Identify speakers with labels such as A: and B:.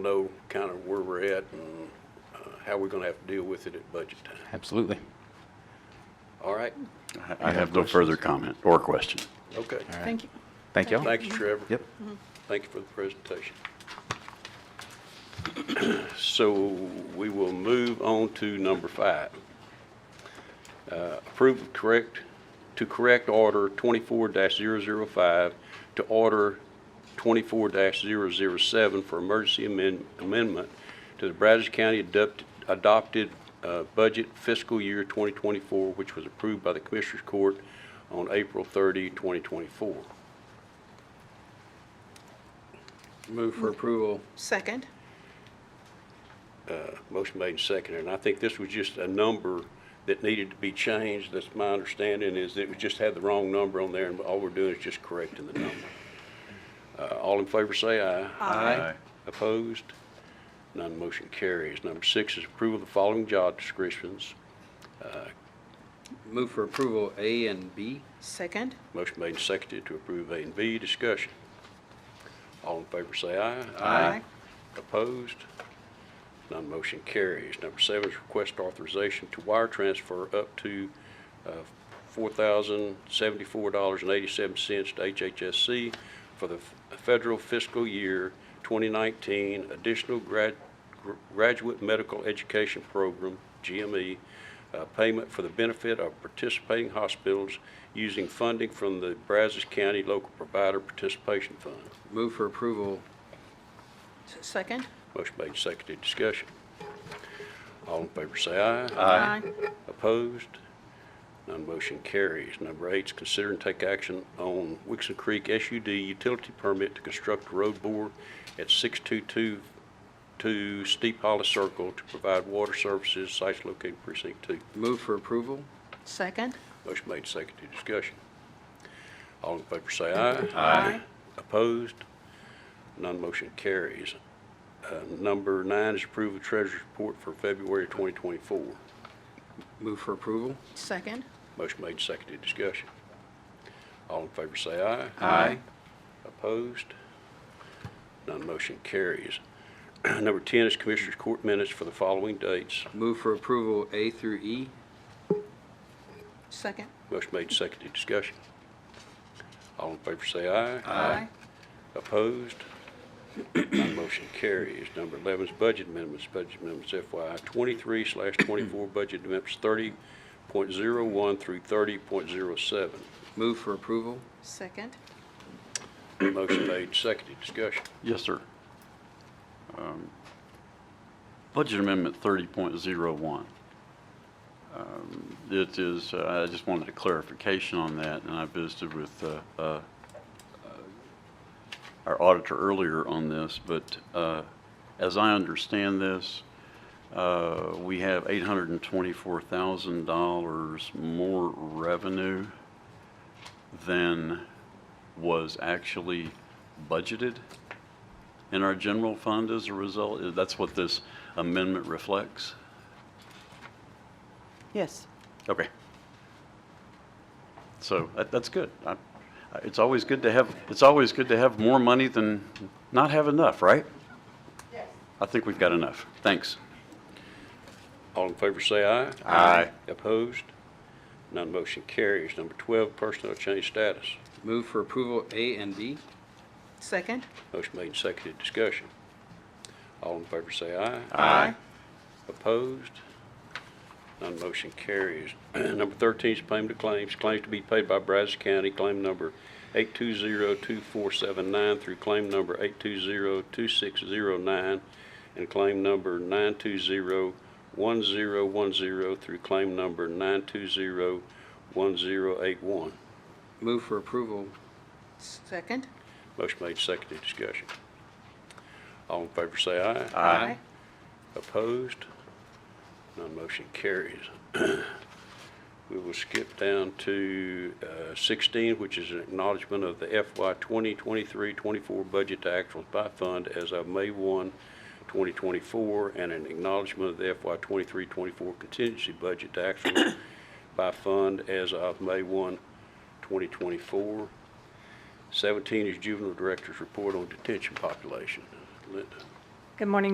A: know kind of where we're at and uh, how we're going to have to deal with it at budget time.
B: Absolutely.
A: All right?
C: I have no further comment or question.
A: Okay.
D: Thank you.
B: Thank y'all.
A: Thanks, Trevor.
B: Yep.
A: Thank you for the presentation. So we will move on to number five. Uh, Approve of correct, to correct order 24-005 to order 24-007 for emergency amend- amendment to the Brazos County adopt- adopted uh, budget fiscal year 2024, which was approved by the Commissioners Court on April 30, 2024.
E: Move for approval.
D: Second.
A: Motion made and seconded, and I think this was just a number that needed to be changed. That's my understanding, is that we just had the wrong number on there, and all we're doing is just correcting the number. Uh, All in favor, say aye.
E: Aye.
A: Opposed? None motion carries. Number six is approval of the following job descriptions.
E: Move for approval A and B.
D: Second.
A: Motion made and seconded to approve A and B. Discussion. All in favor, say aye.
D: Aye.
A: Opposed? None motion carries. Number seven is request authorization to wire transfer up to uh, $4,074.87 to HHSC for the f- federal fiscal year 2019 additional grad- gr- graduate medical education program, GME, uh, payment for the benefit of participating hospitals using funding from the Brazos County Local Provider Participation Fund.
E: Move for approval.
D: S- Second.
A: Motion made, seconded, discussion. All in favor say aye.
D: Aye.
A: Opposed? None motion carries. Number eight is consider and take action on Wixon Creek SUD utility permit to construct a road bore at 6222 Steep Hollow Circle to provide water services, sites located precinct two.
E: Move for approval.
D: Second.
A: Motion made, seconded, discussion. All in favor say aye.
D: Aye.
A: Opposed? None motion carries. Uh, Number nine is approve of treasurer's report for February 2024.
E: Move for approval.
D: Second.
A: Motion made, seconded, discussion. All in favor say aye.
E: Aye.
A: Opposed? None motion carries. Number 10 is Commissioners Court minutes for the following dates.
E: Move for approval A through E.
D: Second.
A: Motion made, seconded, discussion. All in favor say aye.
D: Aye.
A: Opposed? None motion carries. Number 11 is budget amendments. Budget amendments FY 23 slash 24, budget amendments 30.01 through 30.07.
E: Move for approval.
D: Second.
A: Motion made, seconded, discussion.
C: Yes, sir. Um, Budget Amendment 30.01. Um, It is, uh, I just wanted a clarification on that, and I visited with uh, uh, uh, our auditor earlier on this, but uh, as I understand this, uh, we have $824,000 more revenue than was actually budgeted in our general fund as a result? That's what this amendment reflects?
F: Yes.
C: Okay. So that, that's good. I- I- It's always good to have, it's always good to have more money than not have enough, right? Yes. I think we've got enough. Thanks.
A: All in favor say aye.
C: Aye.
A: Opposed? None motion carries. Number 12, personnel change status.
E: Move for approval A and D.
D: Second.
A: Motion made, seconded, discussion. All in favor say aye.
D: Aye.
A: Opposed? None motion carries. Number 13 is payment of claims. Claims to be paid by Brazos County, claim number 8202479 through claim number 8202609 and claim number 9201010 through claim number 9201081.
E: Move for approval.
D: Second.
A: Motion made, seconded, discussion. All in favor say aye.
D: Aye.
A: Opposed? None motion carries. We will skip down to uh, 16, which is an acknowledgment of the FY 2023-24 budget to actuals by fund as of May 1, 2024, and an acknowledgment of the FY 23-24 contingency budget to actuals by fund as of May 1, 2024. 17 is juvenile director's report on detention population. Linda?
D: Good morning,